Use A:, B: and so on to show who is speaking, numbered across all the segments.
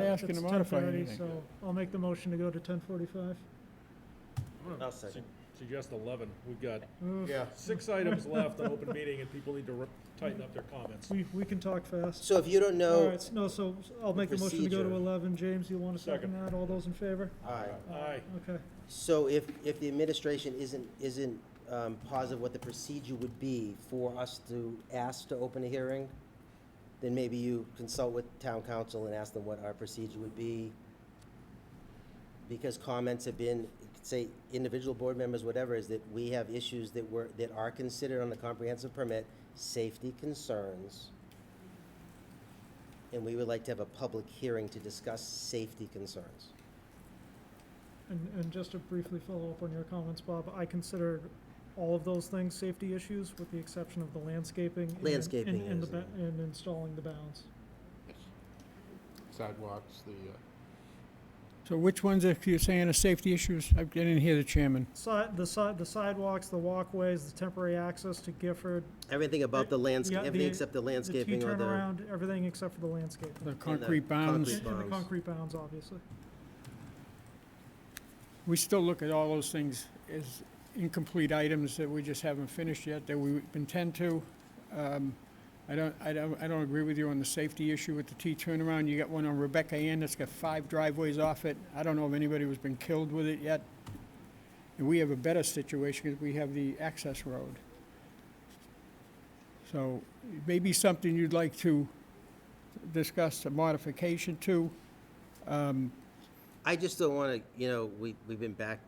A: asking
B: it's
A: to modify
B: 10:30,
A: anything.
B: So I'll make the motion to go to ten forty-five.
C: I'm gonna
D: I'll
C: su-
D: second.
C: Suggest eleven. We've got six items left on open meeting and people need to re- tighten up their comments.
B: We, we can talk fast.
D: So if you don't
B: All
D: know,
B: right, no, so I'll make the motion to go to
D: Procedure.
B: eleven. James, you want to second that? All those in favor?
D: aye.
C: Aye.
B: Okay.
D: So if, if the administration isn't, isn't um, positive what the procedure would be for us to ask to open a hearing, then maybe you consult with town council and ask them what our procedure would be. Because comments have been, say, individual board members, whatever, is that we have issues that were, that are considered on the comprehensive permit, safety concerns. And we would like to have a public hearing to discuss safety concerns.
B: And, and just to briefly follow up on your comments, Bob, I consider all of those things safety issues with the exception of the landscaping. and-
D: Landscaping
B: and- And, the
D: is,
B: ba- and installing the bounds.
E: sidewalks, the, uh,
A: So which ones are you saying are safety issues? I didn't hear the chairman.
B: Side, the side, the sidewalks, the walkways, the temporary access to Gifford,
D: Everything about the landscape,
B: the-
D: everything except the
B: the T
D: landscaping or the,
B: turnaround, everything except for the landscaping.
A: The concrete bounds,
D: concrete.
B: And and the
D: bounds.
B: concrete bounds, obviously.
A: we still look at all those things as incomplete items that we just haven't finished yet, that we intend to. Um, I don't, I don't, I don't agree with you on the safety issue with the T turnaround. You got one on Rebecca Ann that's got five driveways off it. I don't know if anybody has been killed with it yet. And we have a better situation because we have the access road. So maybe something you'd like to discuss a modification to. Um,
D: I just don't wanna, you know, we, we've been back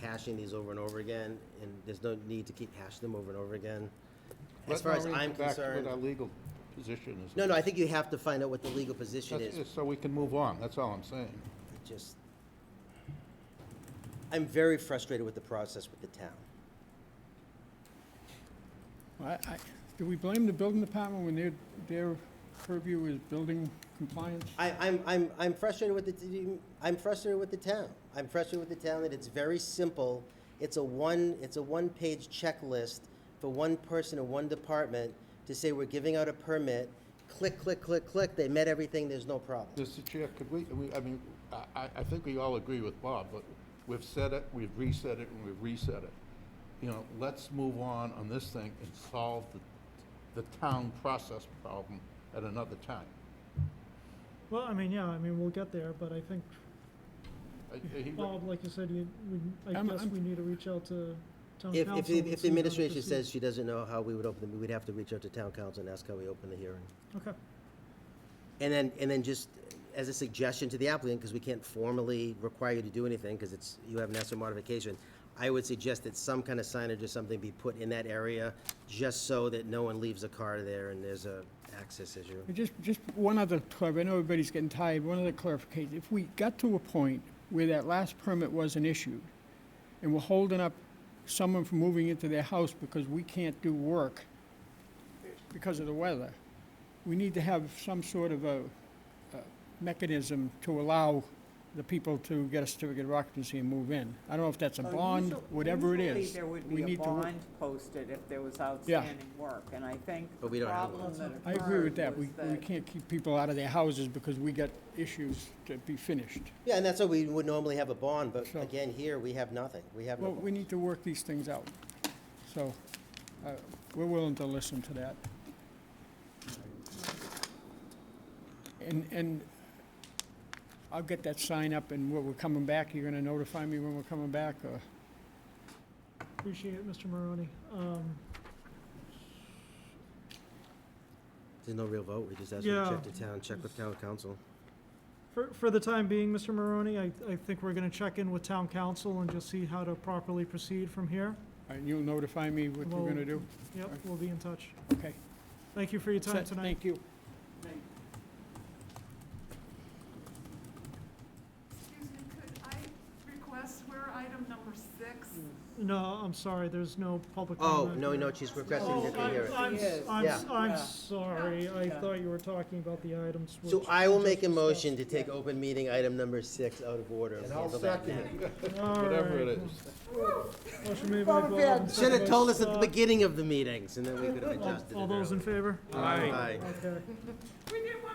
D: hashing these over and over again, and there's no need to keep hashing them over and over again. As
E: let-
D: far
E: why
D: as
E: don't we
D: I'm
E: get back to
D: concerned,
E: What our legal position is.
D: no, no, I think you have to find out what the legal position
E: That's-
D: is,
E: So we can move on, that's all I'm saying.
D: It just. I'm very frustrated with the process with the town.
A: I, I, do we blame the building department when their, their purview is building compliance?
D: I, I'm, I'm, I'm frustrated with the, t- I'm frustrated with the town. I'm frustrated with the town that it's very simple. It's a one, it's a one-page checklist for one person in one department to say we're giving out a permit, click, click, click, click, they met everything, there's no problem.
E: Mr. Chair, could we, we- I mean, I- I, I think we all agree with Bob, but we've said it, we've reset it, and we've reset it. You know, let's move on on this thing and solve the, the town process problem at another time.
B: Well, I mean, yeah, I mean, we'll get there, but I think,
E: I- I- he-
B: Bob, like you said, you, we, I
A: I'm-
B: guess
A: I'm-
B: we need to reach out to town council.
D: If, if,
B: and
D: the- if
B: see
D: the
B: how to
D: administration
B: proceed.
D: says she doesn't know how we would open the, we'd have to reach out to town council and ask how we open the hearing.
B: Okay,
D: And then, and then just as a suggestion to the applicant, because we can't formally require you to do anything, because it's, you haven't asked for modification, I would suggest that some kind of signage or something be put in that area, just so that no one leaves a car there and there's a access issue.
A: Just, just one other clar, I know everybody's getting tired, one other clarification. If we got to a point where that last permit wasn't issued, and we're holding up someone from moving into their house because we can't do work because of the weather, we need to have some sort of a, a mechanism to allow the people to get a certificate of occupancy and move in. I don't know if that's a
F: So
A: bond,
F: Oh, Uh, usual-
A: whatever it
F: usually
A: is.
F: there would
A: we
F: be a
A: need to wo-
F: bond posted if there was outstanding work, and I think
D: But we
F: the
D: don't have one.
F: problem that
A: I agree with
F: occurred
A: that. We,
F: was
A: we
F: that
A: can't keep people out of their houses because we got issues to be finished.
D: Yeah, and that's why we would normally have a bond, but
A: Sure.
D: again, here, we have nothing. We have no
A: Well, we
D: bond.
A: need to work these things out. So, uh, we're willing to listen to that. And, and I'll get that sign up and when we're coming back, you're gonna notify me when we're coming back or?
B: appreciate it, Mr. Maroni. Um,
D: There's no real vote. We just ask you to check
B: Yeah.
D: to town, check with town council.
B: For, for the time being, Mr. Maroni, I, I think we're gonna check in with town council and just see how to properly proceed from here.
A: And you'll notify me what you're gonna do?
B: Yep,
A: Alright.
B: we'll be in touch.
A: Okay.
B: Thank you for your time
A: Set.
B: tonight.
A: Thank you.
G: Excuse me, could I request where item number six?
B: No, I'm sorry, there's no public
D: Oh,
B: comment.
D: no, no, she's requesting
B: Oh,
D: that they hear
B: I'm, I'm,
D: it.
F: Yes.
B: I'm,
D: Yeah.
B: I'm
F: Yeah.
B: sorry, I
F: Yeah.
B: thought you were talking about the items which.
D: So I will
B: we
D: make a
B: oh. just
D: motion to take open meeting item number six out of order.
E: And
D: We'll
E: I'll
D: handle that
E: second
D: now.
E: it,
B: discussed.
E: whatever it
B: Alright.
E: is.
B: Motion made by Bob.
D: Should have told us at the
B: Uh,
D: beginning of the meetings, and then we could have
B: all-
D: adjusted it
B: All those in
D: earlier.
B: favor?
D: Aye.
B: Okay.
G: We knew